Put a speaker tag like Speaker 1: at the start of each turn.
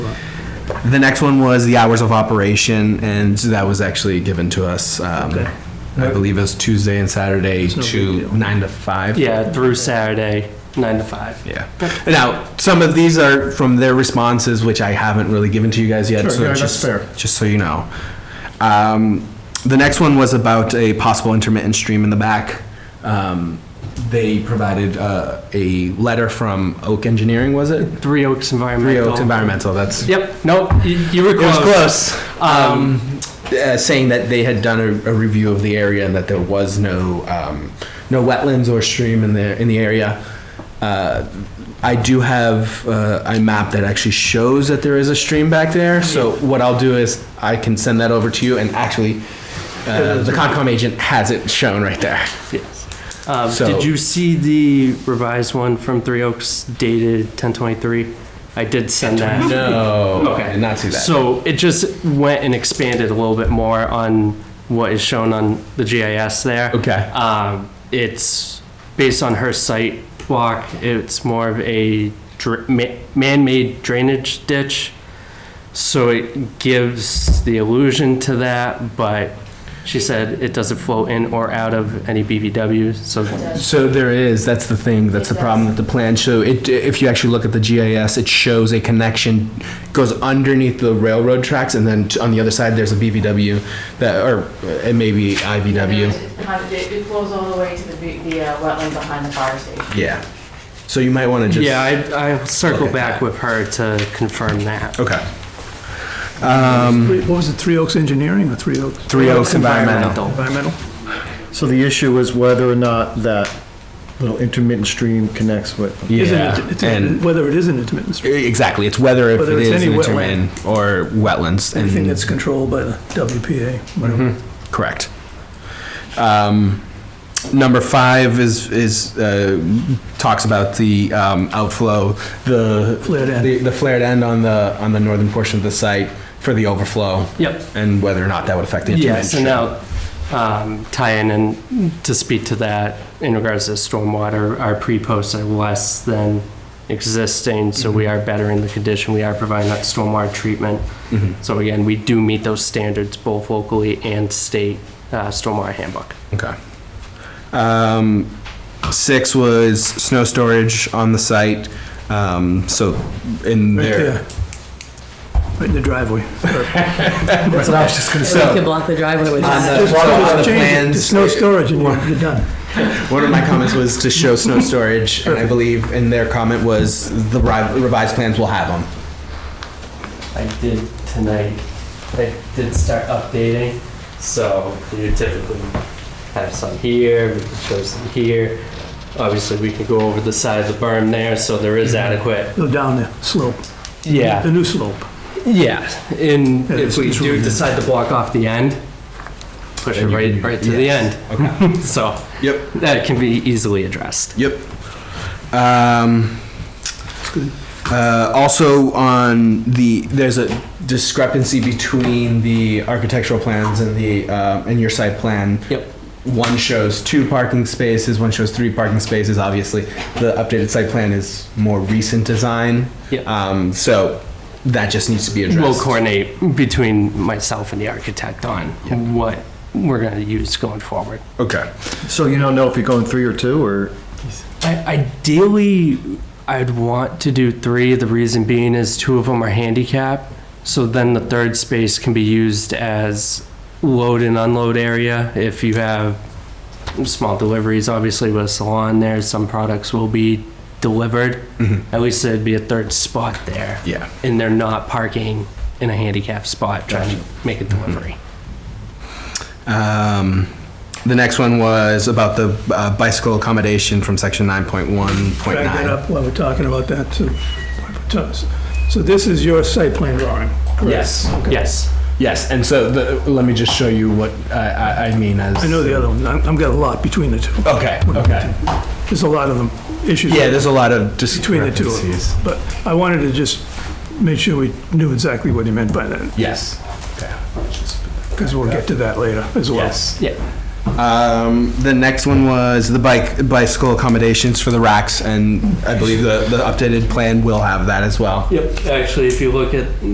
Speaker 1: The next one was the hours of operation, and that was actually given to us. um, I believe it was Tuesday and Saturday to nine to five.
Speaker 2: Yeah, through Saturday, nine to five.
Speaker 1: Yeah. Now, some of these are from their responses, which I haven't really given to you guys yet.
Speaker 3: Sure,
Speaker 1: so
Speaker 3: yeah, that's
Speaker 1: just,
Speaker 3: fair.
Speaker 1: Just so you know. Um, the next one was about a possible intermittent stream in the back. Um, they provided uh, a letter from Oak Engineering, was it?
Speaker 2: Three Oaks Environmental.
Speaker 1: Three Oaks Environmental. That's
Speaker 2: Yep, nope, you, you were
Speaker 1: it was
Speaker 2: close.
Speaker 1: close.
Speaker 2: Um,
Speaker 1: Um, uh, saying that they had done a, a review of the area and that there was no um, no wetlands or stream in the in the area. Uh, I do have uh, a map that actually shows that there is a stream back there. So what I'll do is I can send that over to you. And actually, uh, the Concom agent has it shown right there.
Speaker 2: Yes. Um,
Speaker 1: So-
Speaker 2: Did you see the revised one from Three Oaks dated ten twenty-three? I did send that.
Speaker 1: No, okay,
Speaker 2: Okay.
Speaker 1: not see that.
Speaker 2: So it just went and expanded a little bit more on what is shown on the GIS there.
Speaker 1: Okay.
Speaker 2: Um, it's based on her site walk. It's more of a dr- ma- man-made drainage ditch. So it gives the illusion to that, but she said it doesn't flow in or out of any BBW, so
Speaker 1: So there is, that's the thing, that's the problem with the plan. So it, if you actually look at the GIS, it shows a connection, goes underneath the railroad tracks, and then t- on the other side, there's a BVW, that, or uh, it may be IVW.
Speaker 4: It's behind- It it flows all the way to the, be- the uh, wetland behind the fire station.
Speaker 1: Yeah. So you might want to just.
Speaker 2: yeah, I, I'll circle
Speaker 1: Look at
Speaker 2: back
Speaker 1: that.
Speaker 2: with her to confirm that.
Speaker 1: Okay.
Speaker 3: What was it, Three Oaks Engineering or Three Oaks
Speaker 1: Three Oaks Environmental.
Speaker 3: Environmental?
Speaker 5: So the issue is whether or not that little intermittent stream connects with.
Speaker 3: Isn't
Speaker 1: Yeah,
Speaker 3: it- it's-
Speaker 1: and,
Speaker 3: Whether it is an intermittent stream,
Speaker 1: E, exactly, it's whether if
Speaker 3: Whether
Speaker 1: it
Speaker 3: it's
Speaker 1: is
Speaker 3: any
Speaker 1: an
Speaker 3: wetland.
Speaker 1: intermittent or wetlands. and- Mm-hmm.
Speaker 3: anything that's controlled by the WPA, whatever.
Speaker 1: Correct. Um, Number five is, is, uh, talks about the um, outflow, the.
Speaker 3: Flared end.
Speaker 1: the- The flared end on the, on the northern portion of the site for the overflow.
Speaker 2: Yep.
Speaker 1: And whether or not that would affect the intermittent.
Speaker 2: Yes, and now, um, tie in and to speak to that, in regards to stormwater, our pre-posts are less than existing, so we are better in the condition, we are providing that stormwater treatment.
Speaker 1: Mhm.
Speaker 2: So again, we do meet those standards both locally and state uh, stormwater handbook.
Speaker 1: Okay. Um, Six was snow storage on the site, um, so in
Speaker 3: Right
Speaker 1: there.
Speaker 3: there. Right in the driveway.
Speaker 1: That's what I was just gonna say.
Speaker 6: block the driveway with
Speaker 1: On the,
Speaker 3: Just-
Speaker 1: on the
Speaker 3: just change it to
Speaker 1: plans.
Speaker 3: Snow storage and you're you're done.
Speaker 1: One of my comments was to show snow storage, and I believe, and their comment was the ri- revised plans will have them.
Speaker 2: I did tonight, I did start updating, so you typically have some here, we can show some here. Obviously, we can go over the side of the berm there, so there is adequate.
Speaker 3: Go down the slope. The new slope.
Speaker 2: Yeah, and
Speaker 3: Yeah,
Speaker 2: if we
Speaker 3: it's true.
Speaker 2: do decide to block off the end, push it
Speaker 1: Then you
Speaker 2: right,
Speaker 1: can-
Speaker 2: right to the
Speaker 1: yes.
Speaker 2: end,
Speaker 1: Okay.
Speaker 2: so
Speaker 1: Yep.
Speaker 2: that can be easily addressed.
Speaker 1: Yep. Um,
Speaker 3: good.
Speaker 1: uh, also on the, there's a discrepancy between the architectural plans and the, uh, and your site plan.
Speaker 2: Yep.
Speaker 1: One shows two parking spaces, one shows three parking spaces, obviously. The updated site plan is more recent design.
Speaker 2: Yep.
Speaker 1: Um, so that just needs to be addressed.
Speaker 2: We'll coordinate between myself and the architect on what we're gonna use going forward.
Speaker 1: Okay.
Speaker 5: So you don't know if you're going three or two, or?
Speaker 2: I, ideally, I'd want to do three. The reason being is two of them are handicap, so then the third space can be used as load and unload area. If you have small deliveries, obviously with a salon there, some products will be delivered. At least there'd be a third spot there,
Speaker 1: Yeah.
Speaker 2: and they're not parking in a handicap spot trying to make a delivery.
Speaker 1: Um, the next one was about the uh, bicycle accommodation from section nine point one point
Speaker 3: Back that
Speaker 1: nine.
Speaker 3: up while we're talking about that too. So this is your site plan drawing? correct?
Speaker 2: Yes.
Speaker 1: Yes, and so the, let me just show you what I, I, I mean as.
Speaker 3: I know the other one. I'm- I've got a lot between the two.
Speaker 1: Okay, okay.
Speaker 3: There's a lot of them, issues.
Speaker 1: Yeah, there's a lot of
Speaker 3: Between the two of them.
Speaker 1: discrepancies.
Speaker 3: But I wanted to just make sure we knew exactly what he meant by that,
Speaker 1: Yes.
Speaker 3: because we'll get to that later as well.
Speaker 2: Yeah.
Speaker 1: Um, the next one was the bike, bicycle accommodations for the racks, and I believe the, the updated plan will have that as well.
Speaker 2: Yep. Actually, if you look at